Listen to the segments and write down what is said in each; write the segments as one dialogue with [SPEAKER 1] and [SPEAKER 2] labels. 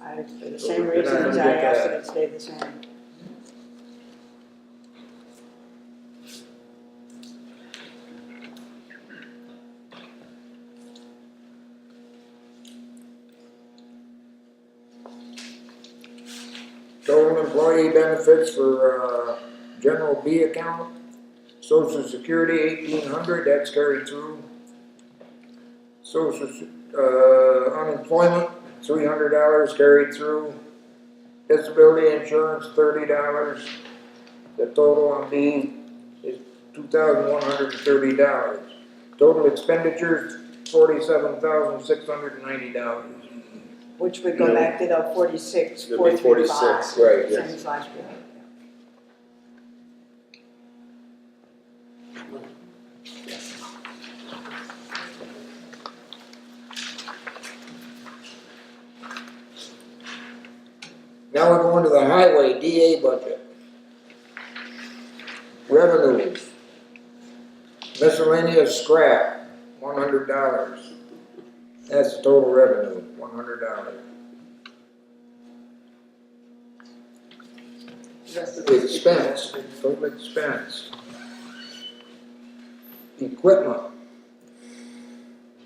[SPEAKER 1] I, for the
[SPEAKER 2] So
[SPEAKER 1] same
[SPEAKER 2] we're gonna
[SPEAKER 1] reasons I
[SPEAKER 2] look
[SPEAKER 1] asked
[SPEAKER 2] at-
[SPEAKER 1] that it stay the same.
[SPEAKER 3] Total employee benefits for, uh, general B account, social security eighteen hundred, that's carried through. Social, Se- uh, unemployment, three hundred dollars carried through. Disability insurance, thirty dollars. The total on B is two thousand one hundred and thirty dollars. Total expenditures, forty-seven thousand six hundred and ninety dollars.
[SPEAKER 1] Which would go
[SPEAKER 2] Yeah.
[SPEAKER 1] back to the forty-six,
[SPEAKER 2] It'd be
[SPEAKER 1] four three five,
[SPEAKER 2] 46,
[SPEAKER 3] right,
[SPEAKER 1] same as last year.
[SPEAKER 3] Now we're going to the highway DA budget. Revenues. Miscellaneous scrap, one hundred dollars. That's the total revenue, one hundred dollars. Expense, total expense. Equipment.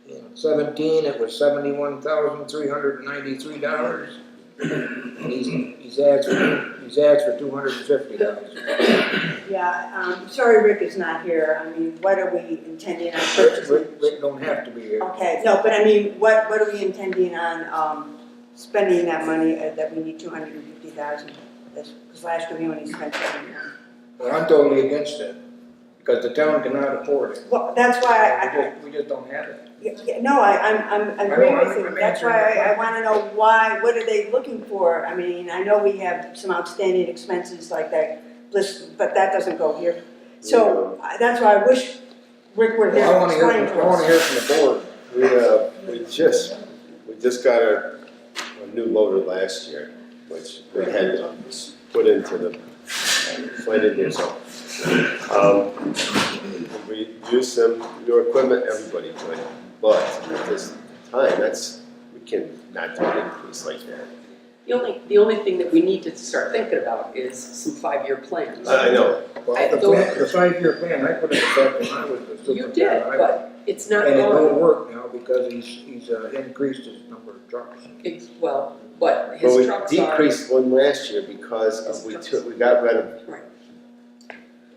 [SPEAKER 3] In Seventeen, it was seventy-one thousand, three hundred and ninety-three dollars. And he's, he's asked, for- he's asked for two hundred and fifty dollars.
[SPEAKER 1] Yeah, um, sorry Rick is not here, I mean, what are we intending on
[SPEAKER 3] Rick,
[SPEAKER 1] purchasing?
[SPEAKER 3] Rick, Rick don't have to be here.
[SPEAKER 1] Okay, no, but I mean, what, what are we intending on, um, spending that money, uh, that we need two hundred and fifty thousand? Because last year we only spent seventy one.
[SPEAKER 3] But I'm totally against it, because the town cannot afford it.
[SPEAKER 1] Well, that's why I,
[SPEAKER 3] We
[SPEAKER 1] I,
[SPEAKER 3] just, we just don't have it.
[SPEAKER 1] yeah, yeah, no, I, I'm, I'm, I agree with you, that's why I, I wanna know why, what are they looking for? I mean, I know we have some outstanding expenses like that, list, but that doesn't go here. So, I- that's why I wish Rick were here
[SPEAKER 3] Well, I
[SPEAKER 1] to
[SPEAKER 3] wanna hear,
[SPEAKER 1] explain
[SPEAKER 3] from-
[SPEAKER 1] to
[SPEAKER 3] I wanna
[SPEAKER 1] us.
[SPEAKER 3] hear from the board.
[SPEAKER 2] We, uh, we just, we just got a, a new loader last year, which we had uh, put into the, put in here, so. Um, we use some new equipment, everybody joined, but at this time, that's, we can not do an increase like that.
[SPEAKER 4] The only, the only thing that we need to start thinking about is some five-year plans.
[SPEAKER 2] I I know,
[SPEAKER 3] Well,
[SPEAKER 4] I
[SPEAKER 3] the
[SPEAKER 4] don't-
[SPEAKER 3] plan, the five-year plan, I put it back when I was the
[SPEAKER 4] You
[SPEAKER 3] superintendent.
[SPEAKER 4] did,
[SPEAKER 3] I-
[SPEAKER 4] but it's not
[SPEAKER 3] And it
[SPEAKER 4] going,
[SPEAKER 3] don't work now because he's, he's uh, increased his number of trucks.
[SPEAKER 4] it's, well, but
[SPEAKER 2] but we
[SPEAKER 4] his trucks are,
[SPEAKER 2] decreased one last year because of
[SPEAKER 4] His
[SPEAKER 2] we
[SPEAKER 4] trucks.
[SPEAKER 2] took, we got rid of.
[SPEAKER 4] Right.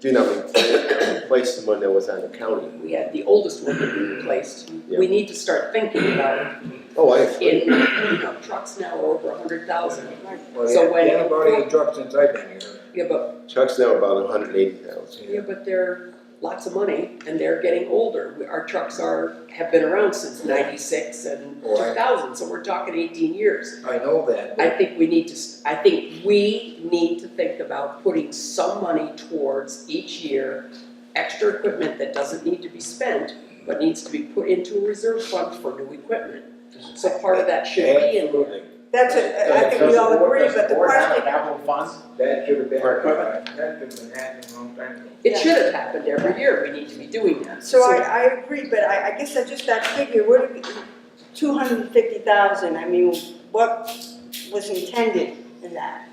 [SPEAKER 2] Do not replace, replace the one that was on the county.
[SPEAKER 4] we had the oldest one that we replaced.
[SPEAKER 2] Yeah.
[SPEAKER 4] We need to start thinking about
[SPEAKER 2] Oh, I
[SPEAKER 4] in, you know, trucks now are over a hundred thousand.
[SPEAKER 3] Well,
[SPEAKER 4] So
[SPEAKER 3] he-
[SPEAKER 4] when-
[SPEAKER 3] he had about eight trucks since I've been here.
[SPEAKER 4] Yeah, but,
[SPEAKER 2] Chuck's now about hundred eighty thousand.
[SPEAKER 4] yeah, but they're lots of money and they're getting older. We- Our trucks are, have been around since ninety-six and two
[SPEAKER 3] Right.
[SPEAKER 4] thousand, so we're talking eighteen years.
[SPEAKER 3] I know that,
[SPEAKER 4] I
[SPEAKER 3] but
[SPEAKER 4] think we need to, s- I think we need to think about putting some money towards each year, extra equipment that doesn't need to be spent, but needs to be put into a reserve fund for new equipment. So part of that should be in,
[SPEAKER 3] absolutely,
[SPEAKER 1] That's, a- I think we all agree, but the question,
[SPEAKER 5] Apple funds?
[SPEAKER 3] that should have been,
[SPEAKER 5] For
[SPEAKER 3] that
[SPEAKER 5] equipment?
[SPEAKER 3] should have been happening a long time ago.
[SPEAKER 4] it should have happened every year, we need to be doing that.
[SPEAKER 1] So I, I agree, but I, I guess I just, that figure, where did, two hundred and fifty thousand, I mean, what was intended in that?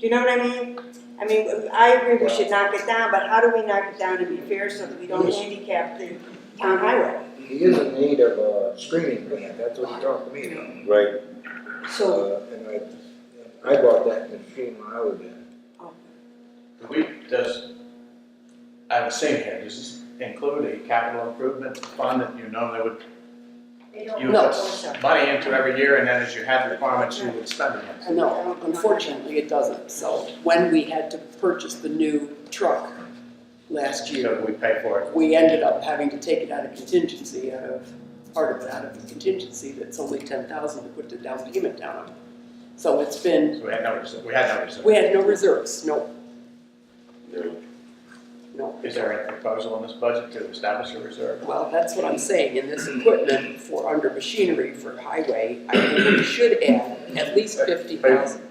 [SPEAKER 1] Do you know what I mean? I mean, I agree we should knock it down, but how do we knock it down to be fair so that we don't handicap the town highway?
[SPEAKER 3] He is in need of a screening plan, that's what he talked to me about.
[SPEAKER 2] Right,
[SPEAKER 1] So,
[SPEAKER 3] Uh, and I, I bought that machine when I was in.
[SPEAKER 5] We, does, I was saying here, does this include a capital improvement fund that you normally would, you
[SPEAKER 4] No.
[SPEAKER 1] Oh,
[SPEAKER 5] would put money into every year, and then as you had requirements, you would spend it?
[SPEAKER 4] No, unfortunately, it doesn't, so when we had to purchase the new truck last year,
[SPEAKER 5] So we pay for it.
[SPEAKER 4] we ended up having to take it out of contingency, out of, part of it out of the contingency that's only ten thousand to put the down payment down on. So it's been,
[SPEAKER 5] So we had no, reserve- we had no reserve.
[SPEAKER 4] we had no reserves, no,
[SPEAKER 2] no.
[SPEAKER 4] no.
[SPEAKER 5] Is there any proposal in this budget to establish a reserve?
[SPEAKER 4] Well, that's what I'm saying, in this equipment for under machinery for highway, I think we should add at least fifty thousand,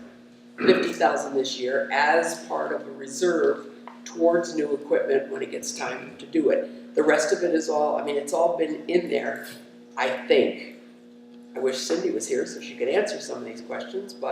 [SPEAKER 4] fifty thousand this year as part of a reserve towards new equipment when it gets time to do it. The rest of it is all, I mean, it's all been in there, I think. I wish Cindy was here so she could answer some of these questions, but